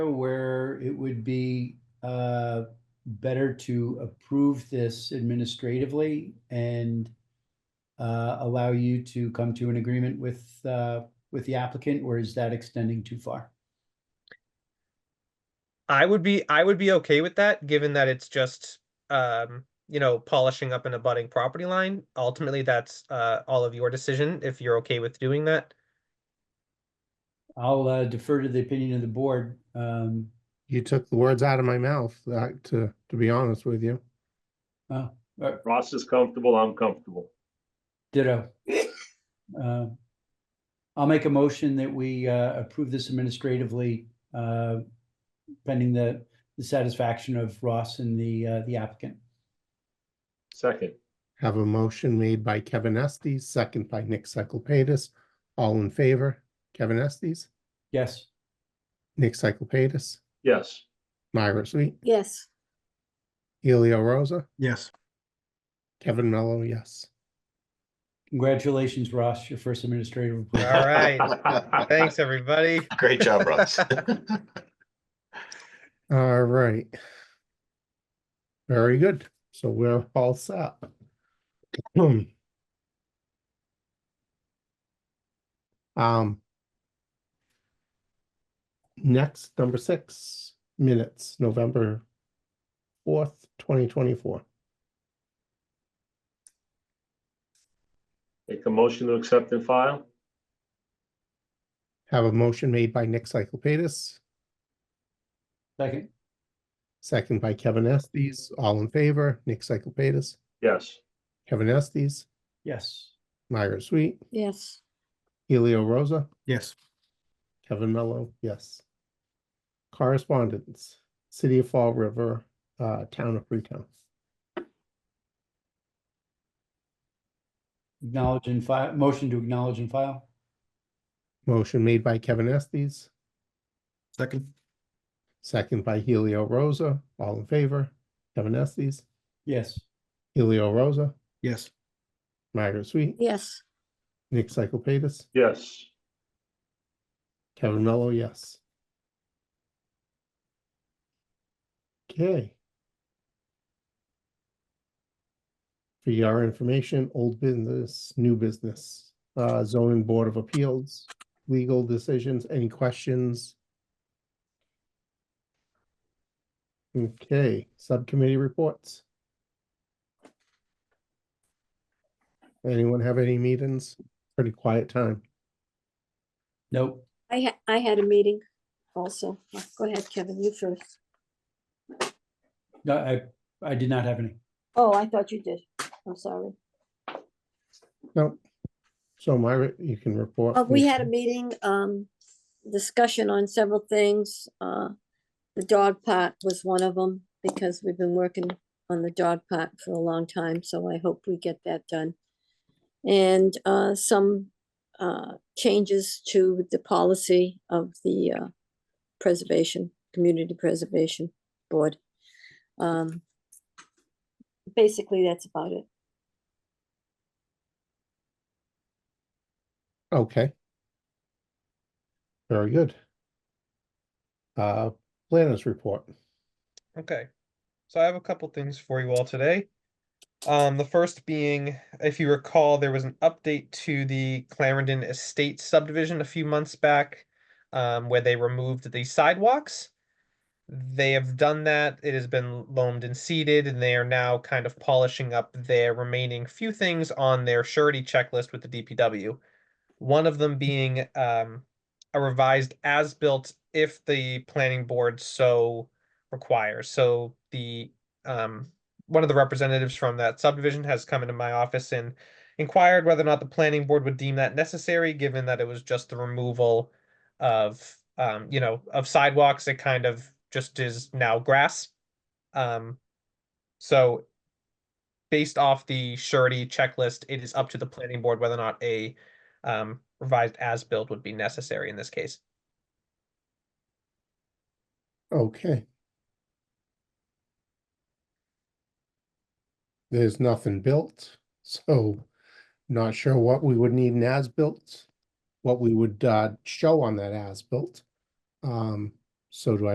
where it would be uh, better to approve this administratively and uh, allow you to come to an agreement with, uh, with the applicant, or is that extending too far? I would be I would be okay with that, given that it's just um, you know, polishing up an abutting property line. Ultimately, that's uh all of your decision if you're okay with doing that. I'll uh, defer to the opinion of the board. Um, You took the words out of my mouth, uh, to, to be honest with you. uh, Ross is comfortable, I'm comfortable. Ditto. Uh, I'll make a motion that we uh, approve this administratively uh, pending the the satisfaction of Ross and the uh, the applicant. Second, Have a motion made by Kevin Estes, second by Nick Cyclepatis. All in favor, Kevin Estes, Yes, Nick Cyclepatis, yes, Myra Sweet, Yes, Helio Rosa, Yes, Kevin Mello, yes. congratulations, Ross, your first administrative. All approval. right. Thanks, everybody. Great job, Russ. All right. Very good. So we're all set. Um. Next, number six, minutes, November fourth, twenty twenty-four. make a motion to accept and file, Have a motion made by Nick Cyclepatis, Second, second by Kevin Estes, all in favor, Nick Cyclepatis, yes, Kevin Estes, yes, Myra Sweet, yes, Helio Rosa. yes, Kevin Mello, yes. Correspondence, City of Fall River, uh, Town of Freetown. acknowledge and file, motion to acknowledge and file. Motion made by Kevin Estes, second, second by Helio Rosa, all in favor. Kevin Estes, Yes, Helio Rosa, yes, Margaret Sweet, yes, Nick Cyclepatis, yes, Kevin Mello, yes. Okay. For your information, old business, new business, uh, zoning board of appeals, legal decisions, any questions? Okay, subcommittee reports. Anyone have any meetings? Pretty quiet time. nope, I had, I had a meeting also. Go ahead, Kevin, you first. No, I, I did not have any. Oh, I thought you did. I'm sorry. No. So Myra, you can report. Uh, we please. had a meeting, um, discussion on several things. Uh, the dog park was one of them because we've been working on the dog park for a long time, so I hope we get that done. And, uh, some, uh, changes to the policy of the, uh, preservation, community preservation board. Um, basically, that's about it. Okay. Very good. Uh, planners report. Okay, so I have a couple things for you all today. Um, the first being, if you recall, there was an update to the Clarendon Estate subdivision a few months back, um, where they removed the sidewalks. They have done that. It has been loamed and seeded, and they are now kind of polishing up their remaining few things on their surety checklist with the DPW. One of them being um, a revised as-built if the planning board so requires. So the um one of the representatives from that subdivision has come into my office and inquired whether or not the planning board would deem that necessary, given that it was just the removal of um, you know, of sidewalks. It kind of just is now grass. Um so based off the surety checklist, it is up to the planning board whether or not a um revised as-built would be necessary in this case. Okay. There's nothing built, so not sure what we would need an as-built, what we would, uh, show on that as-built. Um, so do I?